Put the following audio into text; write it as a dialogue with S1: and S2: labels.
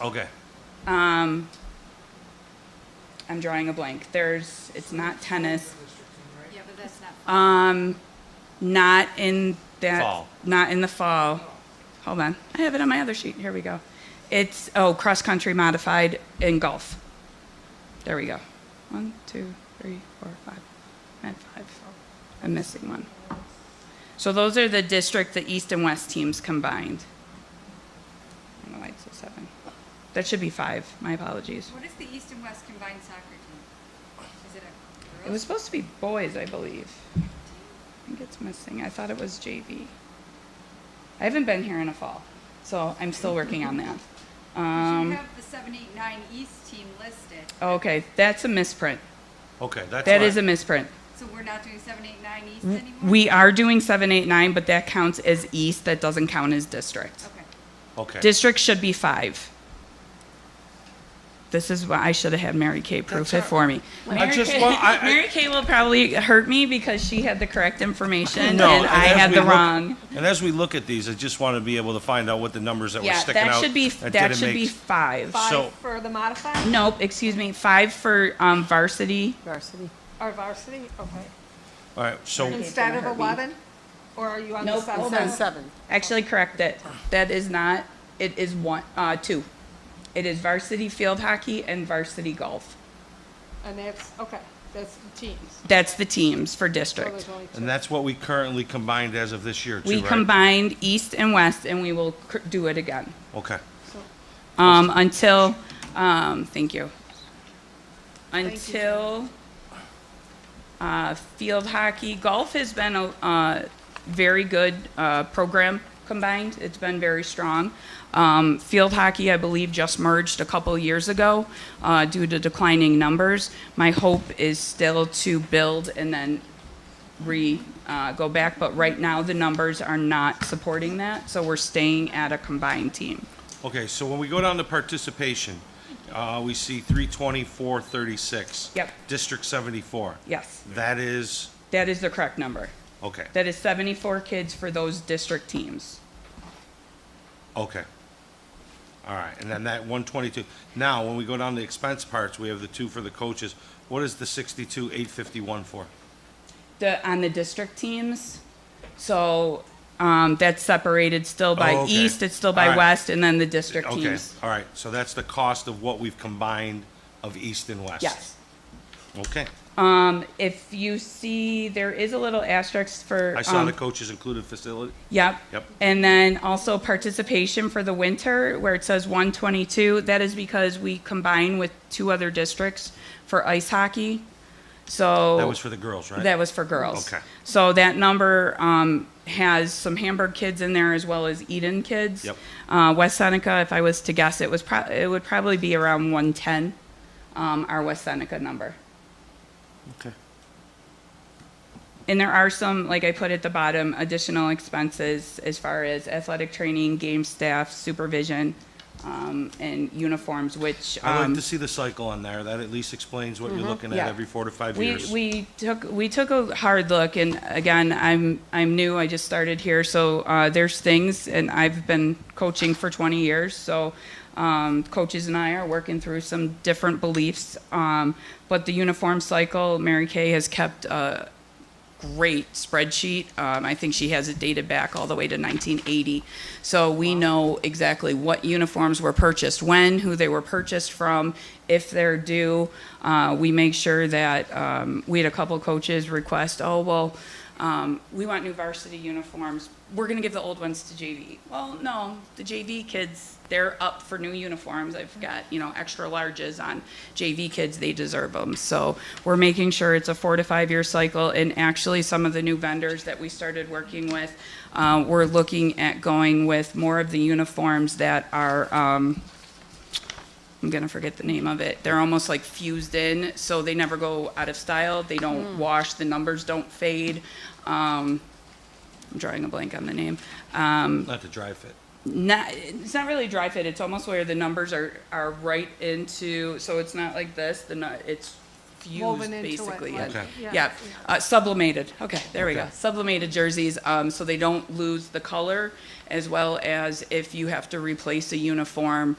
S1: Okay.
S2: I'm drawing a blank. There's, it's not tennis. Um,
S3: Yeah, but that's not.
S2: Not in that.
S1: Fall.
S2: Not in the fall. Hold on. I have it on my other sheet. Here we go. It's, oh, cross country modified in golf. There we go. One, two, three, four, five. I had five. I'm missing one. So those are the district, the east and west teams combined. I don't know why it says seven. That should be five. My apologies.
S3: What is the East and West combined soccer team? Is it a
S2: It was
S3: girls?
S2: supposed to be boys, I believe. I think it's missing. I thought it was JV. I haven't been here in a fall, so I'm still working on that.
S3: You
S2: Um,
S3: have the seven, eight, nine East team listed,
S2: okay, that's a misprint.
S1: Okay, that's
S2: That is a
S1: fine.
S2: misprint.
S3: so we're not doing seven, eight, nine East anymore?
S2: We are doing seven, eight, nine, but that counts as east. That doesn't count as district.
S3: Okay.
S1: okay.
S2: District should be five. This is why I should have had Mary Kay proof it for me.
S1: I
S2: Mary
S1: just
S2: Kay,
S1: want- I- I-
S2: Mary Kay will probably hurt me because she had the correct information
S1: No,
S2: and I
S1: as
S2: had
S1: we
S2: the
S1: look-
S2: wrong.
S1: And as we look at these, I just want to be able to find out what the numbers that were
S2: Yeah,
S1: sticking
S2: that
S1: out.
S2: should be, that
S1: didn't
S2: should be
S1: make-
S2: five.
S1: So-
S4: Five for the modified?
S2: Nope, excuse me, five for um, varsity.
S5: Varsity.
S4: Or varsity, okay.
S1: All right, so,
S4: Instead of
S2: hurt me.
S4: 11? Or are you on the
S2: Nope,
S4: seven?
S2: hold
S5: Seven,
S2: on.
S5: seven.
S2: Actually, correct it. That is not, it is one, uh, two. It is varsity field hockey and varsity golf.
S4: And that's, okay, that's the teams.
S2: That's the teams for
S4: So there's
S2: district.
S4: only two.
S1: and that's what we currently combined as of this year, too,
S2: We
S1: right?
S2: combined east and west and we will cr- do it again.
S1: Okay,
S4: So-
S2: Um, until, um, thank you. Until, uh, field hockey, golf has been a, uh, very good, uh, program combined. It's been very strong. Um, field hockey, I believe, just merged a couple years ago, uh, due to declining numbers. My hope is still to build and then re, uh, go back, but right now the numbers are not supporting that, so we're staying at a combined team.
S1: okay, so when we go down to participation, uh, we see three twenty-four thirty-six.
S2: Yep.
S1: District seventy-four.
S2: Yes.
S1: That is,
S2: That is the correct number.
S1: okay,
S2: That is 74 kids for those district teams.
S1: okay. All right, and then that one twenty-two. Now, when we go down to expense parts, we have the two for the coaches. What is the sixty-two eight fifty-one for?
S2: The, on the district teams, so um, that's separated still by
S1: Oh, okay.
S2: east, it's still by
S1: All right.
S2: west, and then the district
S1: Okay,
S2: teams.
S1: all right, so that's the cost of what we've combined of east and west?
S2: Yes.
S1: Okay,
S2: Um, if you see, there is a little asterisk for.
S1: I saw
S2: um,
S1: the coaches included facility.
S2: Yep.
S1: Yep.
S2: And then also participation for the winter, where it says 122, that is because we combine with two other districts for ice hockey. So.
S1: That was for the girls, right?
S2: That was for girls.
S1: Okay.
S2: So that number um, has some Hamburg kids in there as well as Eden kids.
S1: Yep.
S2: Uh, West Seneca, if I was to guess, it was pro- it would probably be around 110, um, our West Seneca number.
S1: Okay.
S2: And there are some, like I put at the bottom, additional expenses as far as athletic training, game staff, supervision, um, and uniforms, which.
S1: I
S2: um, mm-hmm,
S1: like to see the cycle on there. That at least explains what you're looking at
S2: Yeah.
S1: every four to five
S2: we,
S1: years.
S2: we took we took a hard look and again i'm i'm new i just started here so uh, there's things and i've been coaching for 20 years so um, coaches and i are working through some different beliefs um, but the uniform cycle mary kay has kept uh, great spreadsheet. Um, I think she has it dated back all the way to 1980. So we know exactly what uniforms were purchased when, who they were purchased from, if they're due. Uh, we make sure that um, we had a couple coaches request, oh, well, um, we want new varsity uniforms. We're going to give the old ones to JV. Well, no, the JV kids, they're up for new uniforms. I've got, you know, extra larges on JV kids. They deserve them. So we're making sure it's a four to five year cycle. And actually, some of the new vendors that we started working with, uh, we're looking at going with more of the uniforms that are. Um, I'm gonna forget the name of it. They're almost like fused in, so they never go out of style. They
S4: Hmm.
S2: don't wash. The numbers don't fade. Um, I'm drawing a blank on the name.
S1: Not to dry fit.
S2: Not, it's not really dry fit. It's almost where the numbers are are right into. So it's not like this. The nu- it's fused
S4: Woven into it,
S2: basically.
S4: like-
S2: in.
S1: Okay.
S2: Yeah.
S4: yeah.
S2: Uh, sublimated. Okay, there we go.
S1: Okay.
S2: Sublimated jerseys, um, so they don't lose the color, as well as if you have to replace a uniform.